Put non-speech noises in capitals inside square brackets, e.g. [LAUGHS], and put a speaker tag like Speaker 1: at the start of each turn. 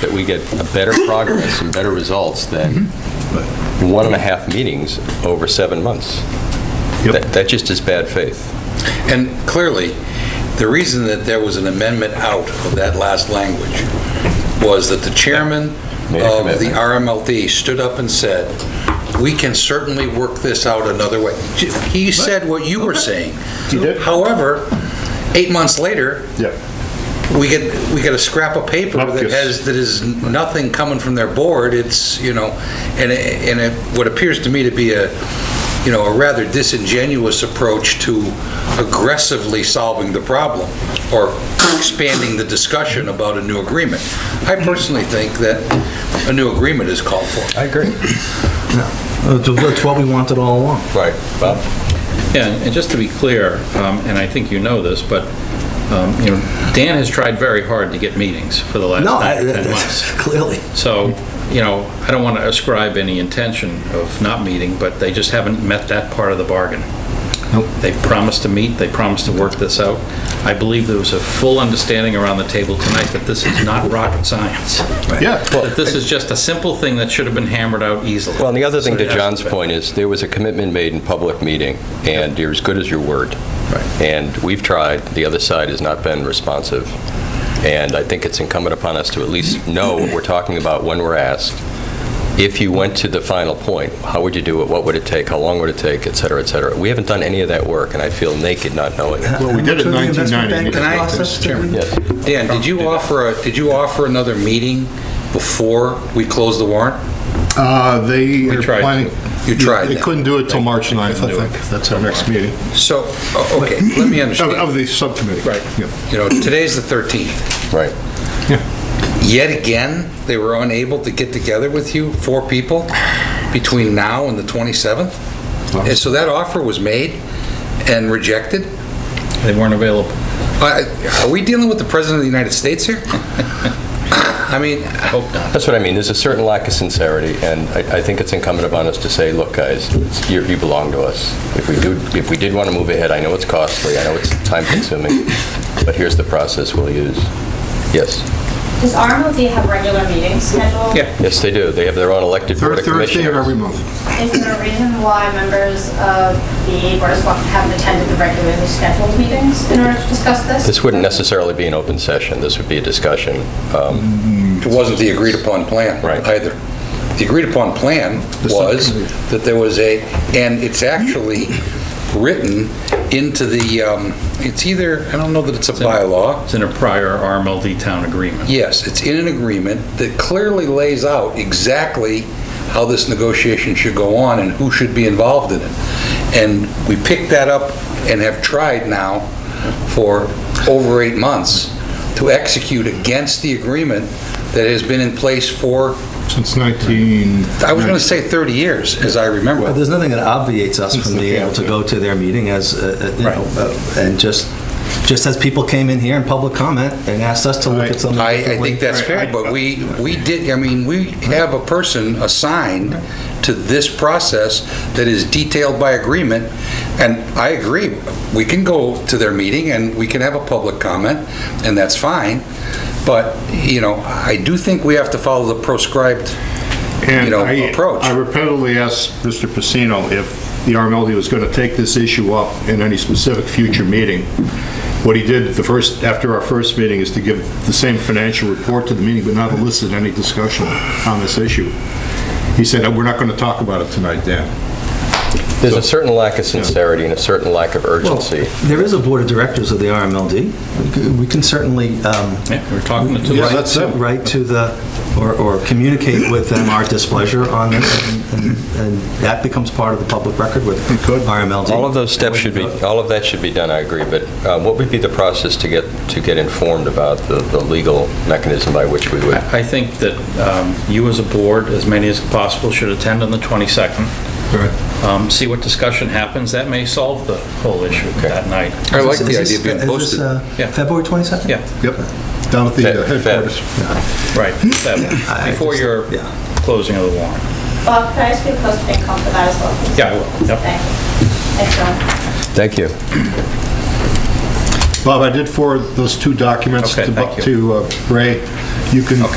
Speaker 1: that we get a better progress and better results than one and a half meetings over seven months.
Speaker 2: Yep.
Speaker 1: That that just is bad faith.
Speaker 3: And clearly, the reason that there was an amendment out of that last language was that the chairman
Speaker 1: Made a
Speaker 3: of the
Speaker 1: commitment.
Speaker 3: RMLD stood up and said, "We can certainly work this out another way." He said what you were saying.
Speaker 2: He did.
Speaker 3: However, eight months later,
Speaker 2: Yeah,
Speaker 3: we get, we get a scrap of paper that
Speaker 2: Upkiss.
Speaker 3: has, that is nothing coming from their board, it's, you know, and, it- and it, what appears to me to be a, you know, a rather disingenuous approach to aggressively solving the problem, or expanding the discussion about a new agreement. I personally think that a new agreement is called for.
Speaker 1: I agree.
Speaker 4: Uh, That's what we wanted all along.
Speaker 1: Right, Bob?
Speaker 5: Yeah, and just to be clear, um, and I think you know this, but, um, you know, Dan has tried very hard to get meetings for the last
Speaker 4: No, I-
Speaker 5: nine or
Speaker 4: [LAUGHS]
Speaker 5: 10 months.
Speaker 4: clearly.
Speaker 5: So, you know, I don't want to ascribe any intention of not meeting, but they just haven't met that part of the bargain.
Speaker 4: Nope.
Speaker 5: They promised to meet, they promised to work this out. I believe there was a full understanding around the table tonight that this is not rocket science.
Speaker 2: yeah.
Speaker 5: That this is just a simple thing that should have been hammered out easily.
Speaker 1: Well, and the other thing to
Speaker 5: So, yeah.
Speaker 1: John's point is, there was a commitment made in public meeting, and you're as good as your word. And we've tried, the other side has not been responsive, and I think it's incumbent upon us to at least know what we're talking about when we're asked. If you went to the final point, how would you do it, what would it take, how long would it take, et cetera, et cetera. We haven't done any of that work, and I feel naked not knowing it.
Speaker 2: Well, we did it in 1990.
Speaker 3: Can I- Chairman?
Speaker 1: Yes.
Speaker 3: Dan, did you offer, a did you offer another meeting before we closed the warrant?
Speaker 2: Uh, They are
Speaker 5: tried.
Speaker 2: planning.
Speaker 3: You tried
Speaker 2: They
Speaker 3: that.
Speaker 2: couldn't do it till March 9th,
Speaker 5: couldn't do
Speaker 2: I
Speaker 5: it.
Speaker 2: think. That's our next meeting.
Speaker 3: So, o- okay, let me
Speaker 2: Of-
Speaker 3: understand.
Speaker 2: Of the subcommittee.
Speaker 5: Right.
Speaker 2: Yeah.
Speaker 3: You know, today's the 13th.
Speaker 1: Right.
Speaker 3: Yet again, they were unable to get together with you, four people, between now and the 27th? And so that offer was made and rejected?
Speaker 5: They weren't available.
Speaker 3: Uh, Are we dealing with the President of the United States here? [LAUGHS] I mean,
Speaker 5: I hope not.
Speaker 1: That's what I mean, there's a certain lack of sincerity, and I I think it's incumbent upon us to say, look, guys, it's- you you belong to us. If we do, if we did want to move ahead, I know it's costly, I know it's time-consuming, but here's the process we'll use. Yes,
Speaker 6: Does RMLD have regular meetings scheduled?
Speaker 5: Yeah.
Speaker 1: yes, they do, they have their own elected board
Speaker 2: Third
Speaker 1: of
Speaker 2: Thursday of
Speaker 1: commissioners.
Speaker 2: every month.
Speaker 6: Is there a reason why members of the Board of Selectmen haven't attended the regularly scheduled meetings in order to discuss this?
Speaker 1: This wouldn't necessarily be an open session, this would be a discussion. Um,
Speaker 3: it wasn't the agreed-upon plan
Speaker 1: Right.
Speaker 3: either. The agreed-upon plan was that there was a, and it's actually written into the, um, it's either, I don't know that it's a bylaw.
Speaker 5: It's in a prior RMLD town agreement.
Speaker 3: Yes, it's in an agreement that clearly lays out exactly how this negotiation should go on and who should be involved in it. And we picked that up and have tried now for over eight months to execute against the agreement that has been in place for,
Speaker 2: Since 19.
Speaker 3: I was going to say 30 years, as I remember.
Speaker 4: But there's nothing that obviates us from being able to go to their meeting as, uh, uh, you know, uh, and just, just as people came in here in public comment and asked us to look at something
Speaker 3: I, I
Speaker 4: differently.
Speaker 3: think that's fair, but we, we did, I mean, we have a person assigned to this process that is detailed by agreement, and I agree, we can go to their meeting and we can have a public comment, and that's fine, but, you know, I do think we have to follow the proscribed, you
Speaker 2: And
Speaker 3: know,
Speaker 2: I-
Speaker 3: approach.
Speaker 2: I repeatedly asked Mr. Pacino if the RMLD was going to take this issue up in any specific future meeting. What he did the first, after our first meeting, is to give the same financial report to the meeting, but not elicit any discussion on this issue. He said, "Uh, "We're not going to talk about it tonight, Dan."
Speaker 1: There's a certain lack of sincerity and a certain lack of
Speaker 4: Well,
Speaker 1: urgency.
Speaker 4: There is a board of directors of the RMLD. We c- We can certainly, um,
Speaker 5: Yeah, we're talking to two
Speaker 2: Yeah,
Speaker 5: sides.
Speaker 2: that's it.
Speaker 4: Right to the, or, or communicate with them our displeasure on this, and- and, and that becomes part of the public record with
Speaker 2: could.
Speaker 4: RMLD.
Speaker 1: All of those steps should be, all of that should be done, I agree, but uh, what would be the process to get, to get informed about the the legal mechanism by which we would?
Speaker 5: I I think that um, you as a board, as many as possible, should attend on the 22nd. Um, See what discussion happens. That may solve the whole issue that night.
Speaker 3: I like
Speaker 4: Is
Speaker 3: the
Speaker 4: this-
Speaker 3: idea of being
Speaker 4: is this,
Speaker 3: posted.
Speaker 4: uh,
Speaker 5: Yeah.
Speaker 4: February 22nd?
Speaker 5: Yeah,
Speaker 2: Yep, down at the uh,
Speaker 1: Fed- Fed.
Speaker 2: headquarters.
Speaker 5: right. that one.
Speaker 4: I- I
Speaker 5: Before
Speaker 4: just-
Speaker 5: your
Speaker 4: yeah.
Speaker 5: closing of the warrant.
Speaker 6: Bob, could I ask you a close to come for that as well? please?
Speaker 5: Yeah, I will. Yep.
Speaker 6: Thank you. Thanks, John.
Speaker 1: Thank you.
Speaker 2: Bob, I did forward those two documents
Speaker 5: Okay,
Speaker 2: to Bu-
Speaker 5: thank you.
Speaker 2: to uh, Ray. You can